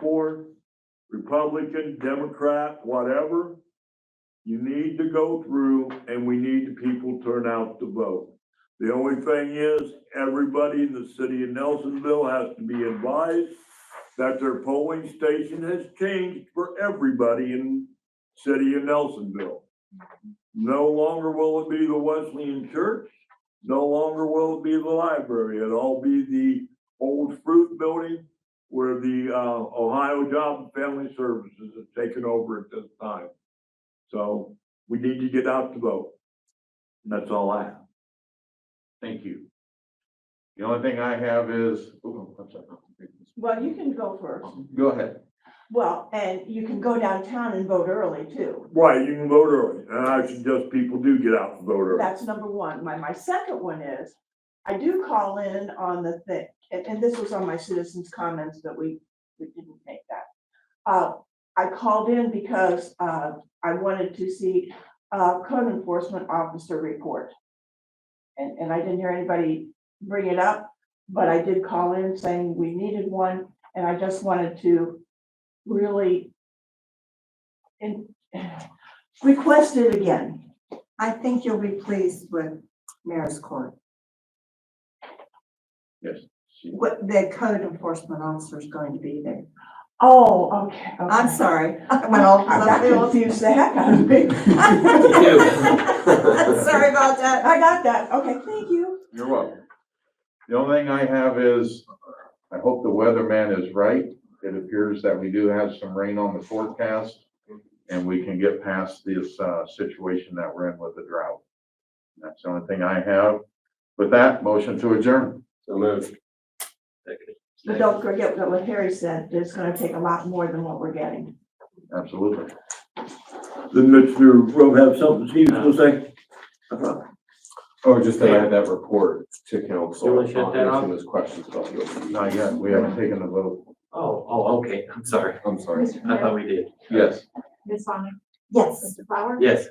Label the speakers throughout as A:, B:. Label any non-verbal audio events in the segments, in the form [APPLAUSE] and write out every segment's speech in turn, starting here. A: board, Republican, Democrat, whatever. You need to go through and we need the people turn out to vote. The only thing is, everybody in the city of Nelsonville has to be advised that their polling station has changed for everybody in city of Nelsonville. No longer will it be the Wesleyan Church, no longer will it be the library, it'll all be the old fruit building where the uh Ohio Job and Family Services has taken over at this time. So we need to get out to vote. And that's all I have.
B: Thank you. The only thing I have is, oh, I'm sorry.
C: Well, you can go first.
B: Go ahead.
C: Well, and you can go downtown and vote early too.
A: Right, you can vote early, and I suggest people do get out and vote early.
C: That's number one. My, my second one is, I do call in on the thing, and, and this was on my citizens' comments that we, we didn't make that. Uh, I called in because, uh, I wanted to see, uh, code enforcement officer report. And, and I didn't hear anybody bring it up, but I did call in saying we needed one, and I just wanted to really in, [SIGHS] request it again.
D: I think you'll be pleased with Mayor's Court,
B: Yes. she-
D: what the code enforcement officer is going to be there.
C: Oh, okay.
D: I'm sorry, I went all
C: That [LAUGHS]
D: left [LAUGHS] field.
C: confused the heck out of me.
D: Sorry about that.
C: I got that. Okay, thank you.
B: You're welcome. The only thing I have is, I hope the weatherman is right. It appears that we do have some rain on the forecast and we can get past this, uh, situation that we're in with the drought. That's the only thing I have. With that, motion to adjourn.
E: So moved.
C: But don't forget that what Harry said, it's gonna take a lot more than what we're getting.
B: Absolutely.
A: Did Mr. Rowe have something he was gonna say?
E: Oh, just that I had that report to council.
F: You wanna shut that off?
E: Answering those questions about the OPEB.
B: Not yet. We haven't taken the vote.
F: Oh, oh, okay, I'm sorry.
E: I'm sorry.
F: I thought we did.
B: Yes.
G: Ms. Sonic,
D: Yes.
G: Mr. Flower,
F: Yes.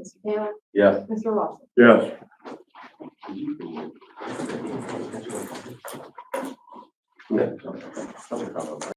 G: Mr. Taylor,
E: Yes.
G: Mr. Lawson.
A: Yes.
E: No. Something about that.